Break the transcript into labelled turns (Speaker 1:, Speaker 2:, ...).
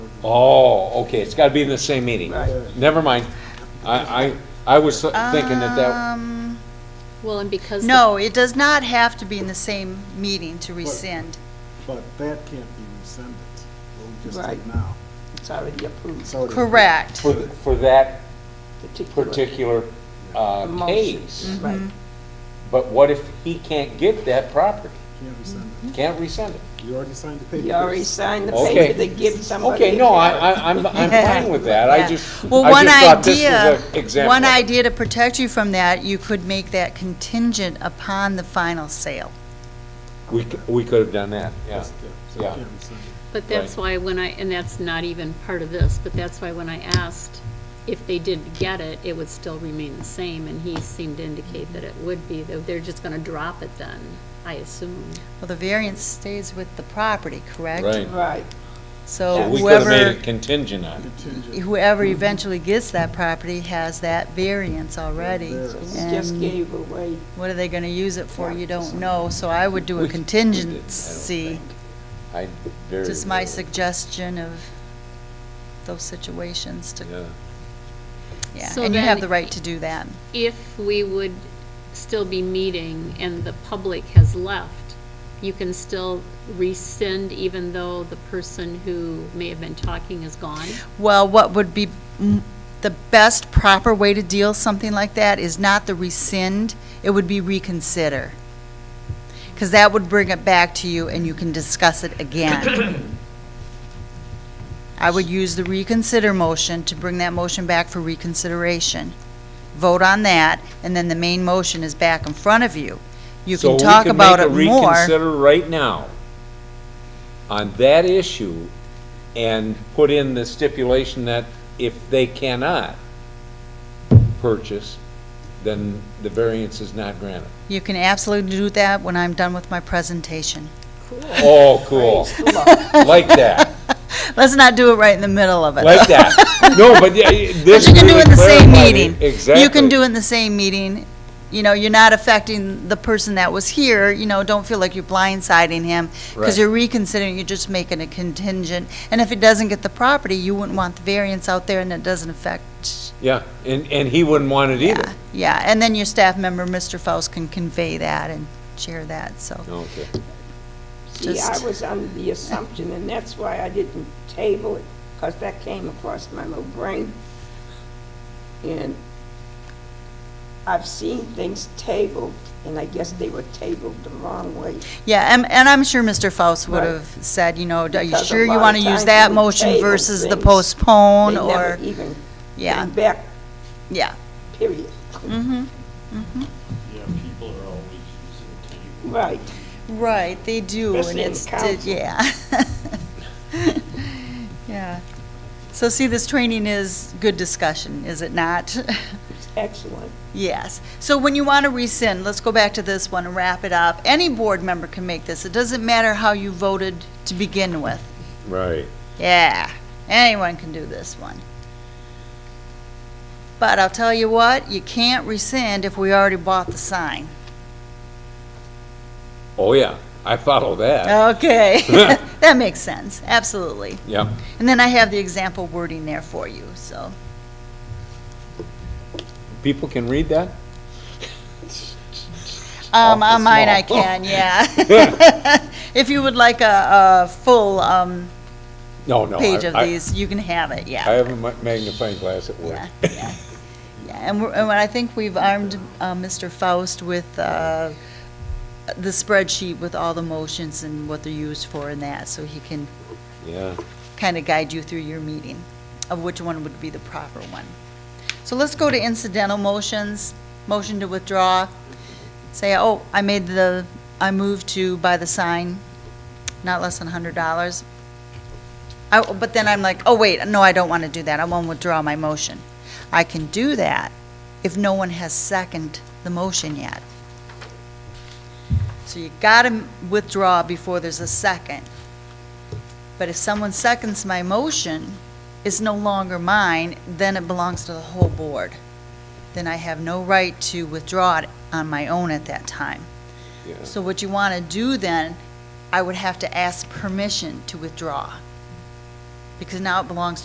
Speaker 1: Oh, okay, it's gotta be in the same meeting.
Speaker 2: Right.
Speaker 1: Never mind. I, I, I was thinking
Speaker 2: Uh,
Speaker 1: that that,
Speaker 2: Um,
Speaker 3: Well, and because. the-
Speaker 2: No, it does not have to be in the same meeting to rescind.
Speaker 4: But that can't be rescinded, what we just did
Speaker 5: Right.
Speaker 4: now.
Speaker 5: It's already approved,
Speaker 4: So it is-
Speaker 2: Correct.
Speaker 1: for, the- for that
Speaker 5: particular.
Speaker 1: particular, uh,
Speaker 5: motion.
Speaker 1: case.
Speaker 2: Mm-hmm.
Speaker 5: Right.
Speaker 1: But what if he can't get that property?
Speaker 4: Can't rescind
Speaker 1: Can't rescind it?
Speaker 4: it. You already signed the paper.
Speaker 5: You already signed the
Speaker 1: Okay.
Speaker 5: paper that gives somebody.
Speaker 1: Okay,
Speaker 5: a
Speaker 1: no,
Speaker 5: carrot.
Speaker 1: I, I, I'm, I'm fine with that. I
Speaker 2: Yeah.
Speaker 1: just, I just
Speaker 2: Well, one
Speaker 1: thought this
Speaker 2: idea,
Speaker 1: was an example.
Speaker 2: one idea to protect you from that, you could make that contingent upon the final sale.
Speaker 1: We, c- we could have done that, yeah.
Speaker 4: So you
Speaker 1: Yeah.
Speaker 4: can't rescind it.
Speaker 3: But that's why when I, and that's not even part of this, but that's why when I asked if they did get it, it would still remain the same, and he seemed to indicate that it would be, that they're just gonna drop it then, I assume.
Speaker 2: Well, the variance stays with the property, correct?
Speaker 1: Right.
Speaker 5: Right,
Speaker 2: So
Speaker 1: So we could have made
Speaker 2: whoever,
Speaker 1: it contingent on it.
Speaker 4: Contingent.
Speaker 2: whoever eventually gets that property has that variance already.
Speaker 4: There. So
Speaker 5: we just
Speaker 2: And
Speaker 5: gave away,
Speaker 2: What are they gonna use it for? You don't know, so I would do
Speaker 1: We-
Speaker 2: a
Speaker 1: we did, I don't
Speaker 2: contingency.
Speaker 1: think. I very.
Speaker 2: Just my
Speaker 1: rarely-
Speaker 2: suggestion of those situations to,
Speaker 1: Yeah.
Speaker 2: yeah,
Speaker 3: So
Speaker 2: and you have
Speaker 3: then-
Speaker 2: the right to do that.
Speaker 3: If we would still be meeting and the public has left, you can still rescind even though the person who may have been talking is gone?
Speaker 2: Well, what would be mm, the best proper way to deal something like that is not the rescind, it would be reconsider. Because that would bring it back to you and you can discuss it again. I would use the reconsider motion to bring that motion back for reconsideration. Vote on that, and then the main motion is back in front of you. You
Speaker 1: So
Speaker 2: can
Speaker 1: we
Speaker 2: talk
Speaker 1: could
Speaker 2: about
Speaker 1: make a
Speaker 2: it more.
Speaker 1: Reconsider right now on that issue and put in the stipulation that if they cannot purchase, then the variance is not granted.
Speaker 2: You can absolutely do that when I'm done with my presentation.
Speaker 1: Oh, cool. Like that,
Speaker 2: Let's not do it right in the middle of it.
Speaker 1: like that. No, but yeah,
Speaker 2: But
Speaker 1: this
Speaker 2: you can do
Speaker 1: really
Speaker 2: it in the same
Speaker 1: clarified it.
Speaker 2: meeting.
Speaker 1: Exactly.
Speaker 2: You can do it in the same meeting. You know, you're not affecting the person that was here, you know, don't feel like you're blindsiding him.
Speaker 1: Right.
Speaker 2: Because you're reconsidering, you're just making a contingent. And if it doesn't get the property, you wouldn't want the variance out there and it doesn't affect.
Speaker 1: Yeah, and, and he wouldn't want it either.
Speaker 2: Yeah, Yeah, and then your staff member, Mr. Faust, can convey that and share that, so.
Speaker 1: Okay.
Speaker 5: see, I
Speaker 2: Just-
Speaker 5: was under the assumption, and that's why I didn't table it, because that came across my little brain. And I've seen things tabled, and I guess they were tabled the wrong way.
Speaker 2: Yeah, and, and I'm sure Mr. Faust would
Speaker 5: Right.
Speaker 2: have said, you know, are you
Speaker 5: Because a
Speaker 2: sure you
Speaker 5: lot of
Speaker 2: want to use
Speaker 5: times
Speaker 2: that
Speaker 5: we
Speaker 2: motion
Speaker 5: table
Speaker 2: versus the
Speaker 5: things.
Speaker 2: postpone
Speaker 5: They never
Speaker 2: or,
Speaker 5: even
Speaker 2: yeah,
Speaker 5: came back,
Speaker 2: yeah.
Speaker 5: period.
Speaker 2: Mm-hmm.
Speaker 6: Yeah, people are always using table.
Speaker 5: Right,
Speaker 2: Right, they do, and
Speaker 5: Especially in
Speaker 2: it's,
Speaker 5: council.
Speaker 2: yeah. Yeah. So see, this training is good discussion, is it not?
Speaker 5: excellent.
Speaker 2: Yes. So when you want to rescind, let's go back to this one and wrap it up. Any board member can make this. It doesn't matter how you voted to begin with.
Speaker 1: Right.
Speaker 2: Yeah, anyone can do this one. But I'll tell you what, you can't rescind if we already bought the sign.
Speaker 1: Oh, yeah, I follow
Speaker 2: Uh,
Speaker 1: that.
Speaker 2: Okay, that makes sense, absolutely.
Speaker 1: Yep.
Speaker 2: And then I have the example wording there for you, so.
Speaker 1: People can read that?
Speaker 2: Um, on mine I
Speaker 1: Awful small.
Speaker 2: can, yeah. If you would like a, a full, um,
Speaker 1: No, no. I-
Speaker 2: page of
Speaker 1: I-
Speaker 2: these, you can have it, yeah.
Speaker 1: I have a ma- magnifying glass at work.
Speaker 2: Yeah, yeah, yeah. And we're, and I think we've armed uh, Mr. Faust with uh, the spreadsheet with all the motions and what they're used for and that, so he can
Speaker 1: Yeah.
Speaker 2: kind of guide you through your meeting of which one would be the proper one. So let's go to incidental motions, motion to withdraw. Say, oh, I made the, I moved to buy the sign, not less than hundred dollars. I, but then I'm like, oh, wait, no, I don't want to do that. I won't withdraw my motion. I can do that if no one has seconded the motion yet. So you gotta withdraw before there's a second. But if someone seconds my motion, it's no longer mine, then it belongs to the whole board. Then I have no right to withdraw it on my own at that time.
Speaker 1: Yeah.
Speaker 2: So what you want to do then, I would have to ask permission to withdraw. because now it belongs to